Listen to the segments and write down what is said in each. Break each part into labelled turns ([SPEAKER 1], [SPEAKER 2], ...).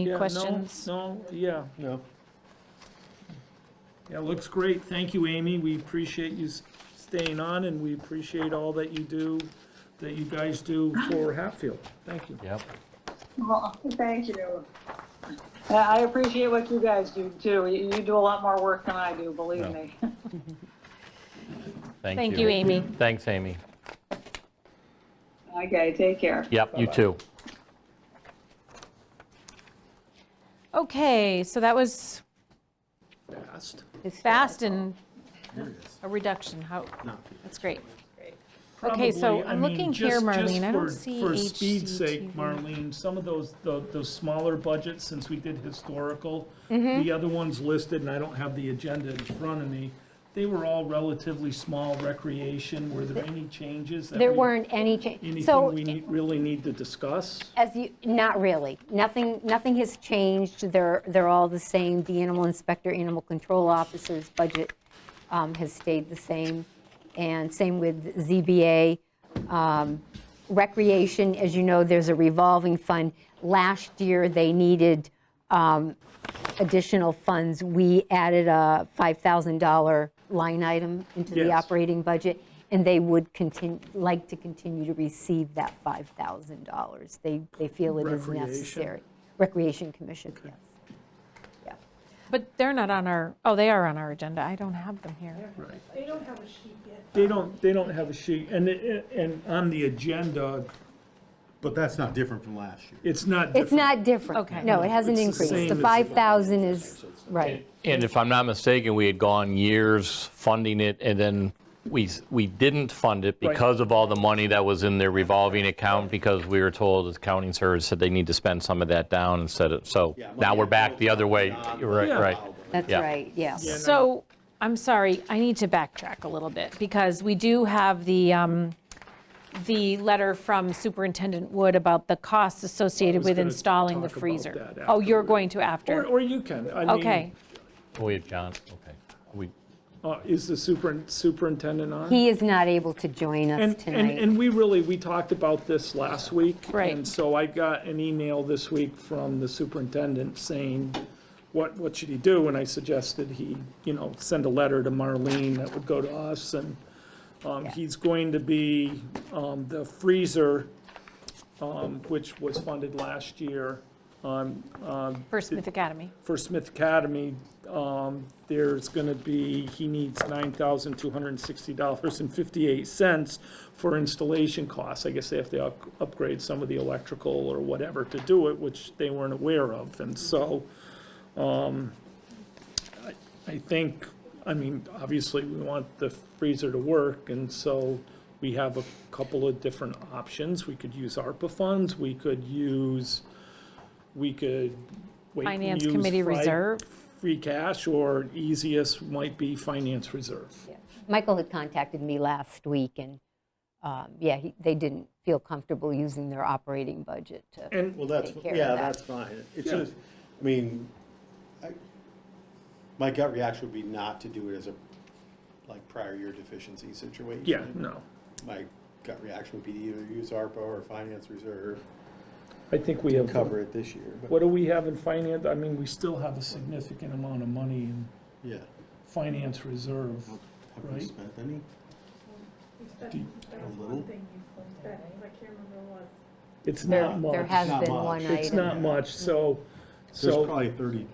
[SPEAKER 1] Any
[SPEAKER 2] Yeah, no,
[SPEAKER 1] questions?
[SPEAKER 2] No, yeah,
[SPEAKER 3] No.
[SPEAKER 2] yeah, looks great. Thank you, Amy. We appreciate you s- staying on, and we appreciate all that you do, that you guys do for Hatfield. Thank you.
[SPEAKER 3] Yep.
[SPEAKER 4] Well, thank you. And I appreciate what you guys do too. You you do a lot more work than I do, believe
[SPEAKER 3] Yeah.
[SPEAKER 4] me.
[SPEAKER 3] Thank you.
[SPEAKER 1] Thank you, Amy.
[SPEAKER 3] Thanks, Amy.
[SPEAKER 4] Okay, take care.
[SPEAKER 3] Yep, you too.
[SPEAKER 1] Okay, so that was
[SPEAKER 2] Fast.
[SPEAKER 1] fast and a reduction. How, that's great. Okay, so
[SPEAKER 2] Probably, I
[SPEAKER 1] I'm
[SPEAKER 2] mean,
[SPEAKER 1] looking here,
[SPEAKER 2] just- just
[SPEAKER 1] Marlene. I don't
[SPEAKER 2] for-
[SPEAKER 1] see
[SPEAKER 2] For speed's sake,
[SPEAKER 1] HCTV.
[SPEAKER 2] Marlene, some of those, the, the smaller budgets, since we did historical,
[SPEAKER 1] Mm-hmm.
[SPEAKER 2] the other ones listed, and I don't have the agenda in front of me, they were all relatively small recreation. Were there any changes? that
[SPEAKER 5] There
[SPEAKER 2] we-
[SPEAKER 5] weren't any change.
[SPEAKER 2] Anything
[SPEAKER 5] So,
[SPEAKER 2] we need- really need to discuss?
[SPEAKER 5] as you, not really. Nothing, nothing has changed. They're, they're all the same. The animal inspector, animal control officer's budget um, has stayed the same. And same with ZBA. Um, Recreation, as you know, there's a revolving fund. Last year, they needed um, additional funds. We added a $5,000 line item into the
[SPEAKER 2] Yes.
[SPEAKER 5] operating operating budget, and they would continue, like to continue to receive that $5,000. They, they feel it is
[SPEAKER 2] Recreation.
[SPEAKER 5] necessary. Recreation Commission, yes. Yeah.
[SPEAKER 1] But they're not on our, oh, they are on our agenda. I don't have them here.
[SPEAKER 2] Right. They don't, they don't have a sheet, and, it- and on the agenda,
[SPEAKER 6] But that's not different from last year.
[SPEAKER 2] it's not
[SPEAKER 5] It's
[SPEAKER 2] different.
[SPEAKER 5] not different.
[SPEAKER 1] Okay.
[SPEAKER 5] No, it hasn't
[SPEAKER 2] It's the
[SPEAKER 5] increased.
[SPEAKER 2] same
[SPEAKER 5] The
[SPEAKER 2] as-
[SPEAKER 5] 5,000 is, right.
[SPEAKER 3] And if I'm not mistaken, we had gone years funding it, and then we, s- we didn't fund it because of all the money that was in their revolving account, because we were told, as accounting service said they need to spend some of that down instead of, so now we're back the other way. You're Right,
[SPEAKER 2] Yeah.
[SPEAKER 3] right.
[SPEAKER 5] That's
[SPEAKER 3] Yeah.
[SPEAKER 5] right, yes.
[SPEAKER 1] So, I'm sorry, I need to backtrack a little bit, because we do have the, um, the letter from Superintendent Wood about the costs associated
[SPEAKER 2] was
[SPEAKER 1] with
[SPEAKER 2] gonna
[SPEAKER 1] installing the
[SPEAKER 2] talk about
[SPEAKER 1] freezer.
[SPEAKER 2] that
[SPEAKER 1] Oh, you're
[SPEAKER 2] afterward.
[SPEAKER 1] going to
[SPEAKER 2] Or,
[SPEAKER 1] after?
[SPEAKER 2] or you can, I mean.
[SPEAKER 1] Okay,
[SPEAKER 3] Oh, We had John, okay. We,
[SPEAKER 2] uh, Is the superin- superintendent on?
[SPEAKER 5] He is not able to join us
[SPEAKER 2] And, and,
[SPEAKER 5] tonight.
[SPEAKER 2] and we really, we talked about this last week.
[SPEAKER 1] Right.
[SPEAKER 2] And so I got an email this week from the superintendent saying, what, what should he do? And I suggested he, you know, send a letter to Marlene that would go to us, and um, he's going to be, um, the freezer, um, which was funded last year,
[SPEAKER 1] for Smith Academy.
[SPEAKER 2] for Smith Academy, um, there's gonna be, he needs nine thousand two hundred and sixty dollars and fifty-eight cents for installation costs. I guess they have to up- upgrade some of the electrical or whatever to do it, which they weren't aware of, and so, um, I, I think, I mean, obviously, we want the freezer to work, and so we have a couple of different options. We could use ARPA funds, we could use, we could wait and
[SPEAKER 1] Finance
[SPEAKER 2] use
[SPEAKER 1] Committee
[SPEAKER 2] fri-
[SPEAKER 1] Reserve.
[SPEAKER 2] Free cash, or easiest might be finance reserve.
[SPEAKER 5] Michael had contacted me last week, and, um, yeah, he- they didn't feel comfortable using their operating budget to.
[SPEAKER 2] And,
[SPEAKER 6] Well, that's,
[SPEAKER 5] Take care of
[SPEAKER 6] yeah,
[SPEAKER 5] that.
[SPEAKER 6] that's fine. It's
[SPEAKER 2] Yeah.
[SPEAKER 6] just, I mean, I- my gut reaction would be not to do it as a, like, prior year deficiency situation.
[SPEAKER 2] yeah, no,
[SPEAKER 6] My gut reaction would be to either use ARPA or finance reserve,
[SPEAKER 2] I think we have.
[SPEAKER 6] cover it this year, but,
[SPEAKER 2] What do we have in finance? I mean, we still have a significant amount of money in
[SPEAKER 6] yeah.
[SPEAKER 2] finance reserve.
[SPEAKER 6] Have we
[SPEAKER 2] Right.
[SPEAKER 6] spent any?
[SPEAKER 2] Do-
[SPEAKER 6] A little?
[SPEAKER 2] It's
[SPEAKER 5] There
[SPEAKER 2] not much.
[SPEAKER 5] there has
[SPEAKER 6] Not
[SPEAKER 5] been
[SPEAKER 6] much.
[SPEAKER 5] one item.
[SPEAKER 2] It's not much, so,
[SPEAKER 6] There's
[SPEAKER 2] so,
[SPEAKER 6] probably thirty.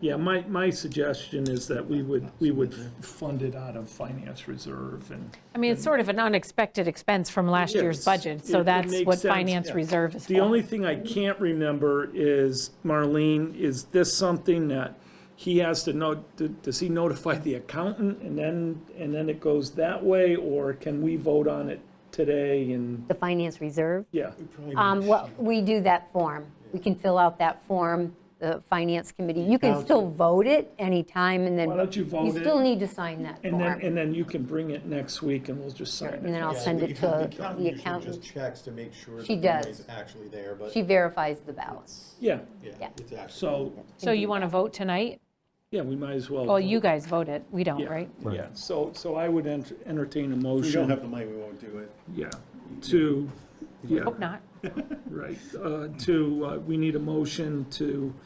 [SPEAKER 2] yeah, my, my suggestion is that we would, we would fund it out of finance reserve and.
[SPEAKER 1] I mean, it's sort of an unexpected expense from last year's
[SPEAKER 2] Yes.
[SPEAKER 1] budget,
[SPEAKER 2] It-
[SPEAKER 1] so
[SPEAKER 2] it
[SPEAKER 1] that's
[SPEAKER 2] makes
[SPEAKER 1] what
[SPEAKER 2] sense,
[SPEAKER 1] finance
[SPEAKER 2] yeah.
[SPEAKER 1] reserve is for.
[SPEAKER 2] The only thing I can't remember is, Marlene, is this something that he has to know, does he notify the accountant and then, and then it goes that way? Or can we vote on it today and,
[SPEAKER 5] The finance reserve?
[SPEAKER 2] yeah,
[SPEAKER 6] probably
[SPEAKER 5] Um,
[SPEAKER 6] need
[SPEAKER 5] Well, we do that form. We can fill out that form, the finance committee. You can still vote it anytime, and then.
[SPEAKER 2] Why don't you vote it?
[SPEAKER 5] You still need to sign that
[SPEAKER 2] and then,
[SPEAKER 5] form.
[SPEAKER 2] and then you can bring it next week and we'll just sign it.
[SPEAKER 5] And then I'll
[SPEAKER 6] Yeah,
[SPEAKER 5] send
[SPEAKER 6] the
[SPEAKER 5] it to
[SPEAKER 6] accountant
[SPEAKER 5] the
[SPEAKER 6] usually Just
[SPEAKER 5] accountant.
[SPEAKER 6] checks to make sure.
[SPEAKER 5] She
[SPEAKER 6] the money's
[SPEAKER 5] does.
[SPEAKER 6] Actually there, but,
[SPEAKER 5] She verifies the balance.
[SPEAKER 2] Yeah,
[SPEAKER 6] yeah,
[SPEAKER 5] yeah.
[SPEAKER 6] it's actually.
[SPEAKER 2] so,
[SPEAKER 1] So you want to vote tonight?
[SPEAKER 2] yeah, we might as well.
[SPEAKER 1] Well,
[SPEAKER 2] vote.
[SPEAKER 1] you guys voted, we don't,
[SPEAKER 2] Yeah,
[SPEAKER 1] right?
[SPEAKER 2] Yeah, so, so I would ent- entertain a
[SPEAKER 6] If we don't have
[SPEAKER 2] motion,
[SPEAKER 6] the money, we won't do it.
[SPEAKER 2] yeah, to, yeah.
[SPEAKER 1] Hope not.
[SPEAKER 2] Right, uh, to, uh, we need a motion to